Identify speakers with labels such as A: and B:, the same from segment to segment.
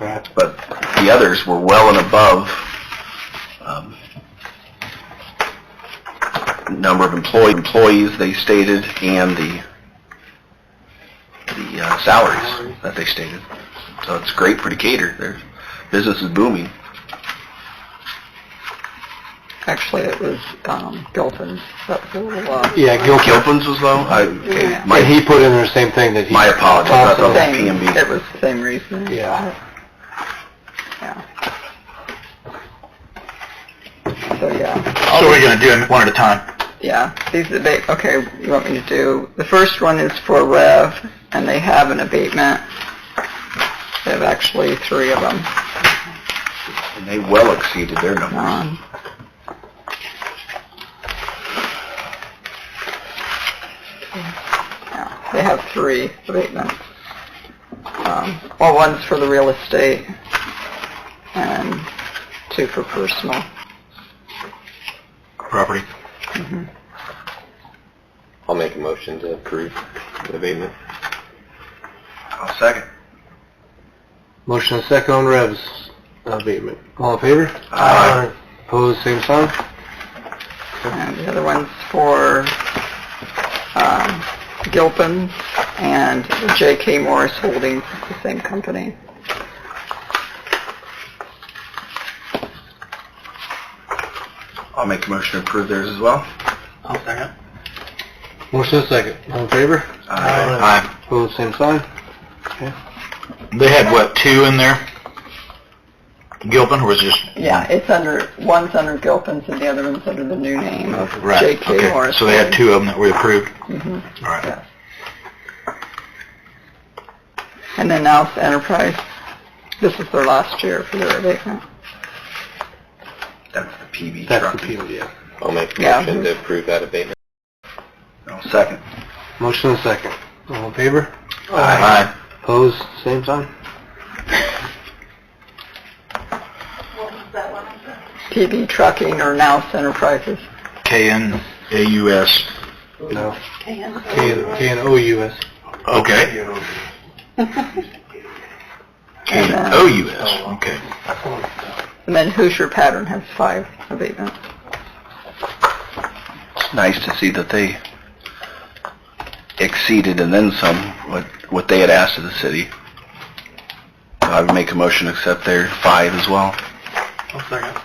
A: Right.
B: But the others were well and above um, number of employee, employees they stated and the, the uh, salaries that they stated. So it's great for Decatur. Their business is booming.
C: Actually, it was um, Gilpin's. That was a little, uh,
A: Yeah, Gilpin.
B: Gilpin's was low? I, okay,
A: And
B: my,
A: he put in there the same thing that he.
B: my apologies. I thought
C: same-
B: it was
C: It
B: PMB.
C: was the same reason.
A: Yeah.
C: Yeah. So, yeah,
D: So we're gonna do them one at a time.
C: yeah, these abate, okay, you want me to do, the first one is for Rev, and they have an abatement. They have actually three of them
B: And they well exceeded their numbers.
C: on. Yeah, They have three abatements. Um, Well, one's for the real estate, and two for personal.
D: Property.
E: I'll make a motion to approve the abatement.
B: I'll second.
A: Motion and second on Rev's abatement. All in favor?
B: Aye.
A: Opposed, same sign?
C: And the other one's for um, Gilpin and J.K. Morris Holdings, it's the same company.
B: I'll make a motion to approve theirs as well.
D: I'll second.
A: Motion and second. All in favor?
D: Aye.
A: Opposed, same sign?
D: They had what, two in there? Gilpin, or was it just?
C: Yeah, it's under, one's under Gilpin's and the other one's under the new name of
D: Right,
C: J.K.
D: okay.
C: Morris.
D: So they had two of them that we approved?
C: Mhm.
D: All right.
C: And then now it's Enterprise. This is their last year for their abatement.
B: That's the PB
A: That's the
B: truck.
A: people, yeah.
E: I'll make a
C: Yeah.
E: motion to approve that abatement.
B: I'll second.
A: Motion and second. All in favor?
D: Aye.
A: Opposed, same sign?
C: PB Trucking or now Enterprises.
D: K-N-A-U-S.
A: No. K K and O-U-S.
D: Okay. K-O-U-S, okay.
C: And then Hoosier Pattern has five abatements.
B: It's nice to see that they exceeded and then some what, what they had asked of the city. I would make a motion to accept their five as well.
D: I'll second.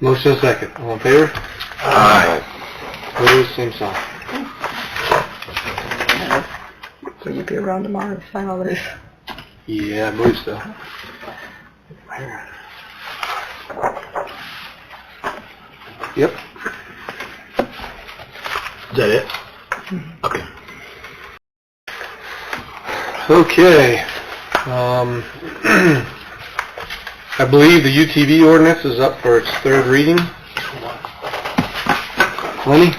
A: Motion and second. All in favor?
B: Aye.
A: Opposed, same sign.
C: Will you be around tomorrow to sign all these?
A: Yeah, I believe so. Yep.
D: Is that it? Okay.
A: Okay. Um, I believe the UTV ordinance is up for its third reading. Lenny?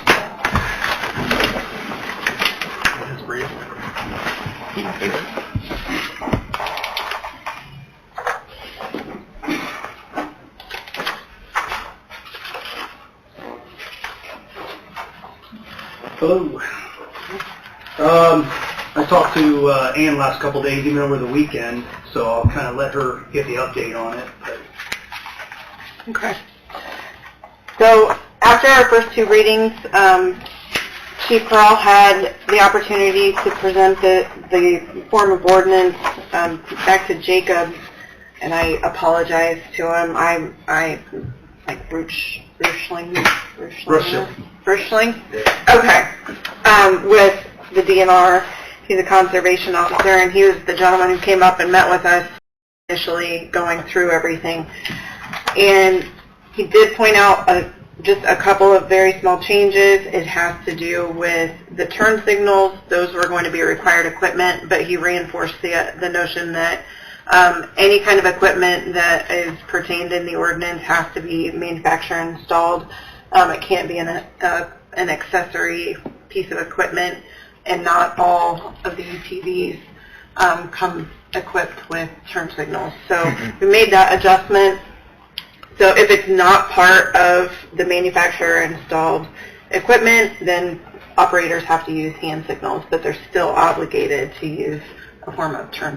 F: Hello. Um, I talked to uh, Ann last couple days, even over the weekend, so I'll kind of let her get the update on it. But
G: Okay. So after our first two readings, um, Chief Pearl had the opportunity to present the, the form of ordinance um, back to Jacob, and I apologize to him. I, I, like Bruch, Bruchling? Bruchling? Bruchling? Okay. Um, with the DNR, he's a conservation officer, and he was the gentleman who came up and met with us initially going through everything. And he did point out a, just a couple of very small changes. It has to do with the turn signals. Those were going to be required equipment, but he reinforced the, the notion that um, any kind of equipment that is pertained in the ordinance has to be manufacturer installed. Um, it can't be an, uh, an accessory piece of equipment, and not all of the UTVs um, come equipped with turn signals. So we made that adjustment. So if it's not part of the manufacturer installed equipment, then operators have to use hand signals, but they're still obligated to use a form of turn